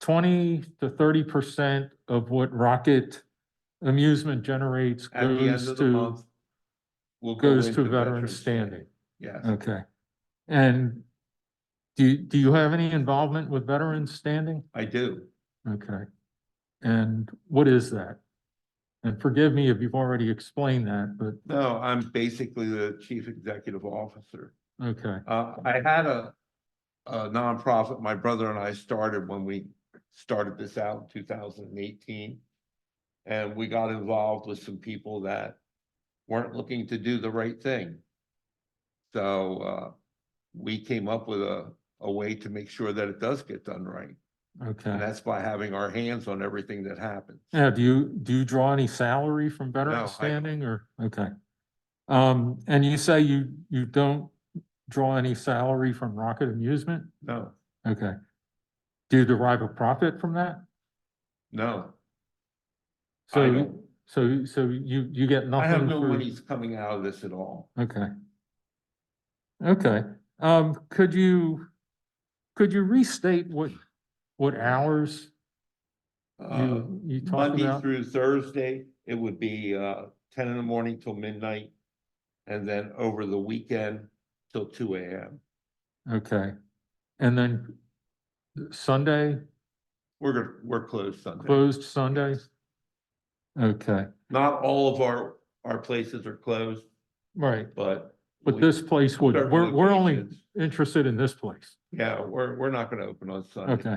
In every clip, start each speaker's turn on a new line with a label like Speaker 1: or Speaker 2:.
Speaker 1: twenty to thirty percent of what Rocket Amusement generates
Speaker 2: At the end
Speaker 1: goes
Speaker 2: of the
Speaker 1: to,
Speaker 2: month. will go
Speaker 1: goes to
Speaker 2: into
Speaker 1: veteran
Speaker 2: Day.
Speaker 1: standing.
Speaker 2: Yes,
Speaker 1: Okay. And do, you- do you have any involvement with veterans standing?
Speaker 2: I do.
Speaker 1: Okay. And what is that? And forgive me if you've already explained that, but,
Speaker 2: No, I'm basically the chief executive officer.
Speaker 1: okay,
Speaker 2: Uh, I had a, a nonprofit, my brother and I started when we started this out in two thousand and eighteen. And we got involved with some people that weren't looking to do the right thing. So, uh, we came up with a, a way to make sure that it does get done right. And
Speaker 1: okay.
Speaker 2: that's by having our hands on everything that happens.
Speaker 1: Yeah, do you, do you draw any salary from
Speaker 2: No, I
Speaker 1: veteran
Speaker 2: don't.
Speaker 1: standing or, okay? Um, and you say you, you don't draw any salary from Rocket Amusement?
Speaker 2: No,
Speaker 1: Okay. Do you derive a profit from that?
Speaker 2: no, I
Speaker 1: So,
Speaker 2: don't.
Speaker 1: so, so you, you get nothing?
Speaker 2: I have no
Speaker 1: for-
Speaker 2: monies coming out of this at all.
Speaker 1: Okay. Okay, um, could you, could you restate what, what hours
Speaker 2: Uh,
Speaker 1: you, you talked
Speaker 2: Monday
Speaker 1: about?
Speaker 2: through Thursday, it would be uh ten in the morning till midnight. And then over the weekend till two AM.
Speaker 1: Okay, and then Sunday,
Speaker 2: We're gonna, we're closed Sunday.
Speaker 1: closed Sunday? Okay,
Speaker 2: Not all of our, our places are closed,
Speaker 1: right,
Speaker 2: but.
Speaker 1: but
Speaker 2: we-
Speaker 1: this place would,
Speaker 2: certain
Speaker 1: we're, we're only
Speaker 2: locations-
Speaker 1: interested in this place.
Speaker 2: Yeah, we're, we're not gonna open on Sunday.
Speaker 1: Okay.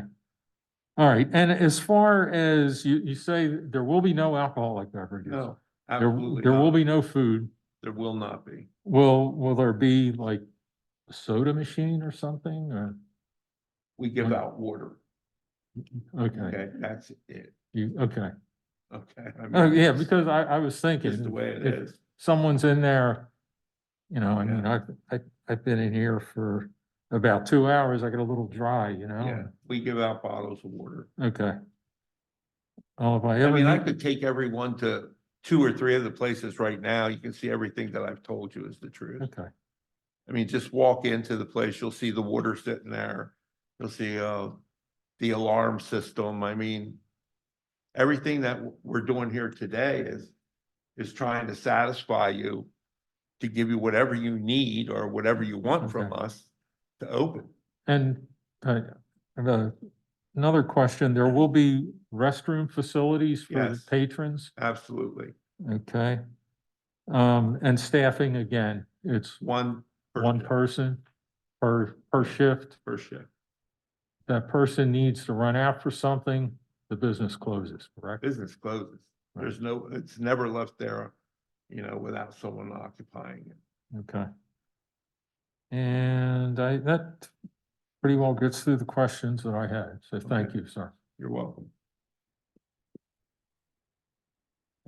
Speaker 1: All right, and as far as you, you say there will be no alcoholic beverages?
Speaker 2: No,
Speaker 1: There,
Speaker 2: absolutely.
Speaker 1: there will
Speaker 2: not.
Speaker 1: be no food?
Speaker 2: There will not be.
Speaker 1: Will, will there be like a soda machine or something or,
Speaker 2: We give
Speaker 1: Okay.
Speaker 2: out water.
Speaker 1: okay,
Speaker 2: Okay, that's it.
Speaker 1: you, okay.
Speaker 2: Okay. I
Speaker 1: Oh,
Speaker 2: mean,
Speaker 1: yeah,
Speaker 2: it's
Speaker 1: because I, I was
Speaker 2: Just the
Speaker 1: thinking,
Speaker 2: way it
Speaker 1: if-
Speaker 2: is.
Speaker 1: someone's in there, you know, I mean,
Speaker 2: Yeah.
Speaker 1: I've, I, I've been in here for about two hours, I get a little dry, you
Speaker 2: Yeah,
Speaker 1: know?
Speaker 2: we give out bottles of water.
Speaker 1: Okay. Oh, if I
Speaker 2: I
Speaker 1: ever,
Speaker 2: mean, I
Speaker 1: need-
Speaker 2: could take everyone to two or three of the places right now. You can see everything that I've told you is the truth.
Speaker 1: okay,
Speaker 2: I mean, just walk into the place, you'll see the water sitting there. You'll see, uh, the alarm system. I mean, everything that w- we're doing here today is, is trying to satisfy you to give you whatever you need or whatever you want from us to open.
Speaker 1: and, uh, I have a- another question, there will be restroom facilities for the
Speaker 2: Yes.
Speaker 1: patrons?
Speaker 2: Absolutely.
Speaker 1: Okay. Um, and staffing again, it's
Speaker 2: One.
Speaker 1: one
Speaker 2: person
Speaker 1: person per, per shift.
Speaker 2: Per shift.
Speaker 1: That person needs to run out for something, the business closes, correct?
Speaker 2: business closes.
Speaker 1: Right.
Speaker 2: There's no, it's never left there, you know, without someone occupying it.
Speaker 1: Okay. And I, that pretty well gets through the questions that I had, so thank
Speaker 2: Okay.
Speaker 1: you, sir.
Speaker 2: You're welcome.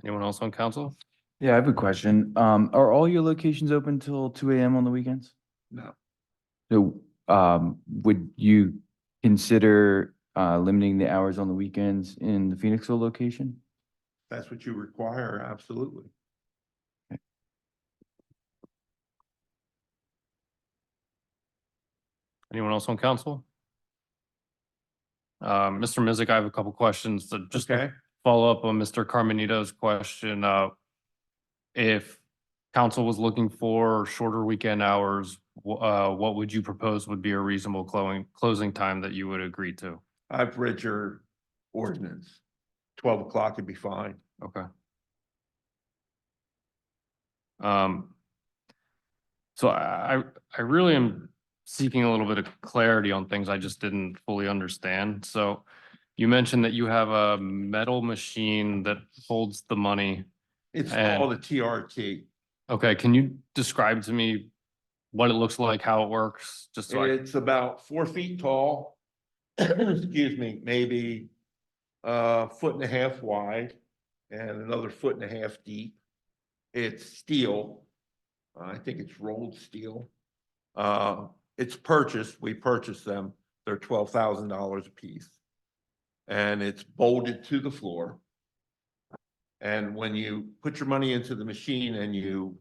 Speaker 3: Anyone else on council?
Speaker 4: Yeah, I have a question. Um, are all your locations open till two AM on the weekends?
Speaker 2: No,
Speaker 4: So, um, would you consider, uh, limiting the hours on the weekends in the Phoenixville location?
Speaker 2: that's what you require, absolutely.
Speaker 3: Anyone else on council? Uh, Mr. Mizik, I have a couple questions to just
Speaker 2: Okay,
Speaker 3: follow up on Mr. Carmenito's question. Uh, if council was looking for shorter weekend hours, wh- uh, what would you propose would be a reasonable closing, closing time that you would agree to?
Speaker 2: I've read your ordinance. Twelve o'clock would be fine.
Speaker 3: Okay. Um, so I, I I really am seeking a little bit of clarity on things I just didn't fully understand. So you mentioned that you have a metal machine that holds the money.
Speaker 2: It's
Speaker 3: And-
Speaker 2: all the TRT.
Speaker 3: Okay, can you describe to me what it looks like, how it works? Just so I,
Speaker 2: It's about four feet tall. Excuse me, maybe a foot and a half wide and another foot and a half deep. It's steel. Uh, I think it's rolled steel. Uh, it's purchased, we purchased them. They're twelve thousand dollars a piece. And it's bolted to the floor. And when you put your money into the machine and you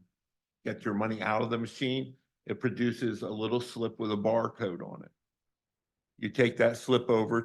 Speaker 2: get your money out of the machine, it produces a little slip with a barcode on it. You take that slip over